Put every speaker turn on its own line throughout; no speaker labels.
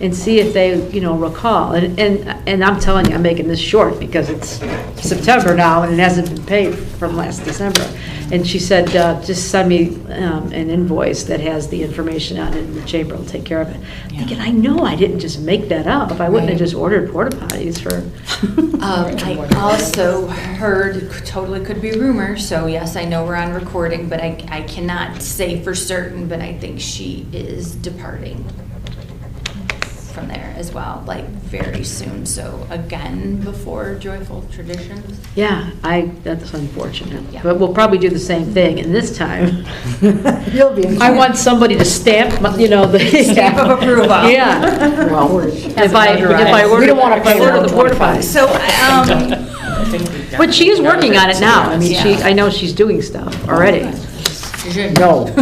and see if they, you know, recall. And, and and I'm telling you, I'm making this short because it's September now and it hasn't been paid from last December. And she said, uh, just send me um, an invoice that has the information on it and the chamber will take care of it. Thinking, I know I didn't just make that up. I wouldn't have
Right.
just ordered porta potties for.
Um, I also heard, totally could be rumor, so yes, I know we're on recording, but I, I cannot say for certain, but I think she is departing from there as well, like very soon, so again, before Joyful Traditions.
Yeah, I, that's unfortunate.
Yeah.
But we'll probably do the same thing, and this time,
You'll be in.
I want somebody to stamp, my- you know, the.
Stamp of approval.
Yeah.
Well, we're-
If I, if I order,
We don't wanna
if I
pay our
order the
own
porta potties.
So, um,
But she is working on it now. I mean, she,
Yeah.
I know she's doing stuff already.
No,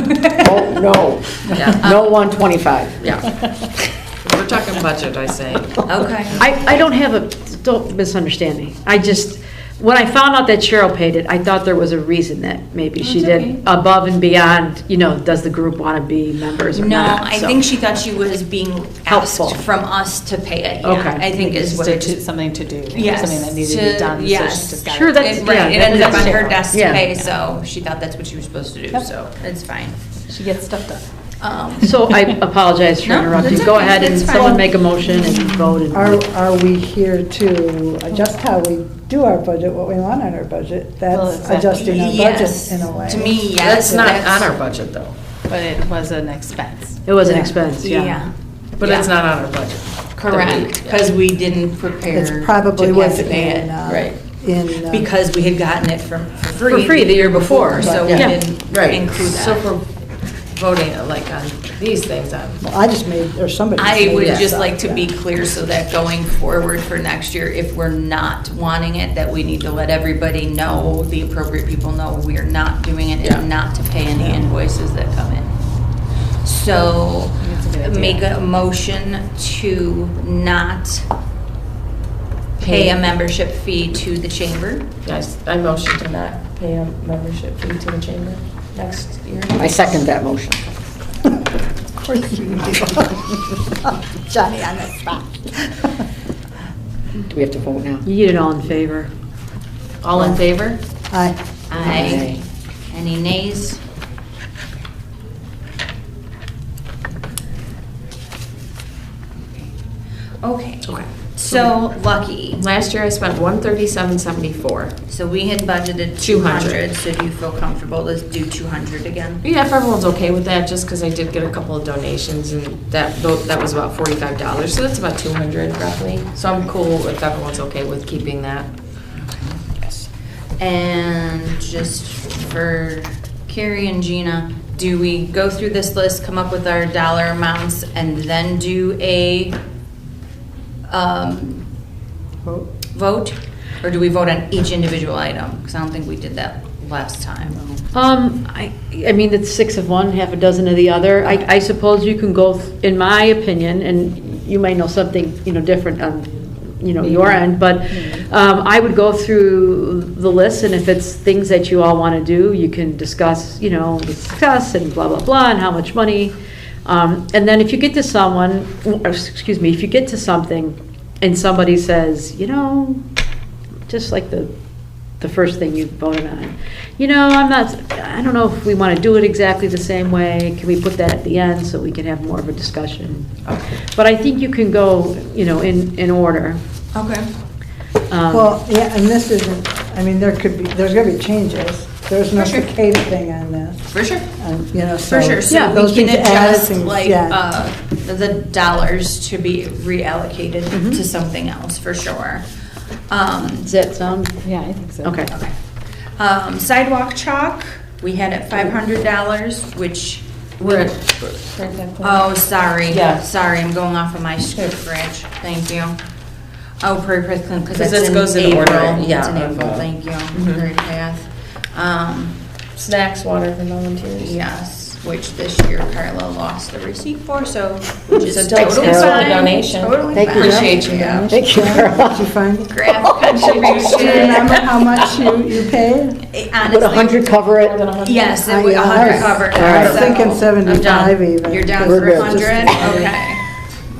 oh, no, no 125.
We're talking budget, I say.
Okay.
I, I don't have a, don't misunderstand me. I just, when I found out that Cheryl paid it, I thought there was a reason that maybe she
That's okay.
did above and beyond, you know, does the group want to be members or
No,
not?
I
so.
think she thought she was being asked
Helpful.
from us to pay it, yeah,
Okay.
I think is what
To-
it
to- Something to do,
Yes,
something that needed to
to-
be done. so she
yes.
just got
Sure,
it.
that's-
It- Right,
yeah,
it ended up
that's
on her
Cheryl.
desk
Yeah.
today, so she thought that's what she was supposed to do,
Yep.
so it's fine.
She gets stuff done.
Um,
So I apologize for
No,
interrupting.
that's
Go
okay.
ahead and
That's fine.
someone make a motion and vote
Are,
and.
are we here to adjust how we do our budget, what we want on our budget?
Well,
That's
exactly.
adjusting our budget
yes.
in a way.
To me, yes.
That's not
that's-
on our budget, though.
But it was an expense.
It was an
Yeah.
expense, yeah.
Yeah,
But it's
Yeah.
not on our budget.
correct, because we didn't prepare.
It's probably
to have
was
to pay it,
in, uh,
right.
in. uh,
Because we had gotten it from, for
For
free.
free the year before,
So we
yeah.
didn't include
So
that.
if we're voting, like, on these things, on
well, I just made, or somebody.
I
made
would
this
just
up,
like to be
uh, yeah.
clear so that going forward for next year, if we're not wanting it, that we need to let everybody know, the appropriate people know, we are not doing it
Yeah.
and not to pay any invoices that come in. So
That's a good idea.
make a motion to not pay a membership fee to the chamber.
Yes, I motion to not pay a membership fee to the chamber next year.
I second that motion. Of course you do. Johnny on the spot. Do we have to vote now?
You get it all in favor.
All in favor?
Aye.
Aye. Any nays? Okay,
Okay.
so lucky.
Last year I spent one thirty-seven seventy-four.
So we had
200.
budgeted 200, so do you feel comfortable? Let's do 200 again.
Yeah, if everyone's okay with that, just because I did get a couple of donations and that, tho- that was about forty-five dollars, so that's about two hundred roughly. So I'm cool if everyone's okay with keeping that.
And just for Carrie and Gina, do we go through this list, come up with our dollar amounts, and then do a um, vote? Or do we vote on each individual item? Because I don't think we did that last time.
Um, I, I mean, it's six of one, half a dozen of the other. I, I suppose you can go, th- in my opinion, and you might know something, you know, different on, you know, your end, but um, I would go through the list, and if it's things that you all want to do, you can discuss, you know, discuss and blah, blah, blah, and how much money. Um, And then if you get to someone, or, excuse me, if you get to something and somebody says, you know, just like the, the first thing you voted on. You know, I'm not, I don't know if we want to do it exactly the same way. Can we put that at the end so we can have more of a discussion? But I think you can go, you know, in, in order.
Okay.
Um,
Well, yeah, and this isn't, I mean, there could be, there's gonna be changes. There's no
For sure.
cicada thing on this,
For sure.
um, you know, so.
For sure,
yeah,
so
those
we can
things add
adjust
things,
like,
yeah.
uh, the dollars to be reallocated
Mm-hmm.
Mhm.
to something else, for sure. Um,
Does that sound,
Yeah, I think so.
okay.
okay. Um, sidewalk chalk, we had at five hundred dollars, which,
We're at,
oh, sorry.
Yeah.
Sorry, I'm going off of my script, Rich, thank you. Oh, Prairie Path Clinic, because
Because
that's
this goes
in
in order,
April.
yeah,
It's in
of,
April,
uh,
thank you,
mhm.
Prairie Path. Um,
Snacks, water for volunteers.
Yes, which this year Carla lost the receipt for, so, which is
So thanks,
totally
Carla,
fine.
donation.
Totally
Thank you.
fine.
Appreciate you,
Yeah.
Donna.
Thank you. Did you find it?
Graph
Do you remember
contribution.
how much you, you paid?
It
Would a
Honestly,
hundred cover it?
yes, it would, a
I- I
hundred
was-
cover.
Ah, I was
so-
thinking
I'm done.
75 even.
You're down
We're
for
good.
a hundred?
Just-
Okay.